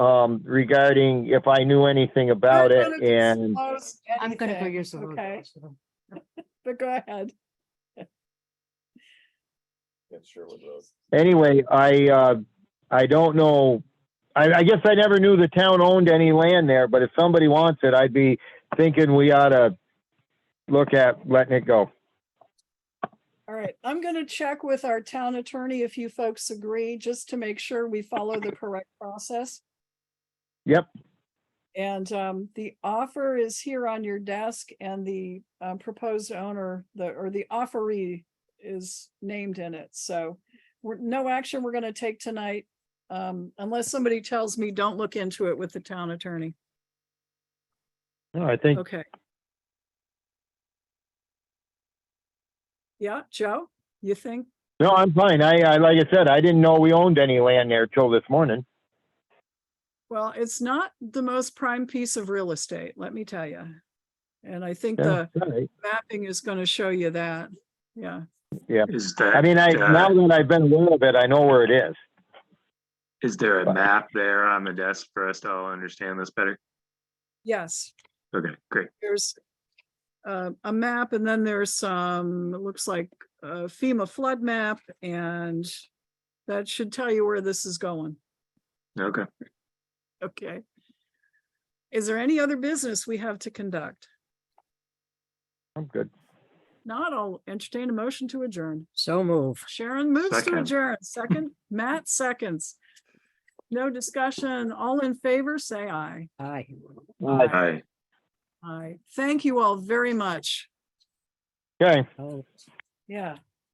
um, regarding if I knew anything about We're it gonna and disclose I'm gonna go anything, use the word. Okay, but go ahead. It's Sherwood Road. anyway, I, uh, I don't know. I, I guess I never knew the town owned any land there, but if somebody wants it, I'd be thinking we ought to look at letting it go. All right, I'm gonna check with our town attorney if you folks agree, just to make sure we follow the correct process. Yep. And um, the offer is here on your desk and the um, proposed owner, the, or the offeree is named in it, so we're, no action we're gonna take tonight. Um, unless somebody tells me, don't look into it with the town attorney. No, I think, Okay. Yeah, Joe, you think? no, I'm fine. I, I, like I said, I didn't know we owned any land there till this morning. Well, it's not the most prime piece of real estate, let me tell you. And I think Yeah, the all right. mapping is going to show you that. Yeah, Is I that, uh, mean, I, now that I've been aware of it, I know where it is. is there a map there on the desk for us to all understand this better? yes, Okay, great. there's uh, a map and then there's some, it looks like a FEMA flood map and that should tell you where this is going. Okay. Okay. Is there any other business we have to conduct? I'm good. Not, I'll entertain a motion to adjourn. So move. Sharon moves to Second. adjourn, second, Matt seconds. No discussion, all in favor, say aye. Aye. Hi. Aye. Thank you all very much. Okay. Oh. Yeah.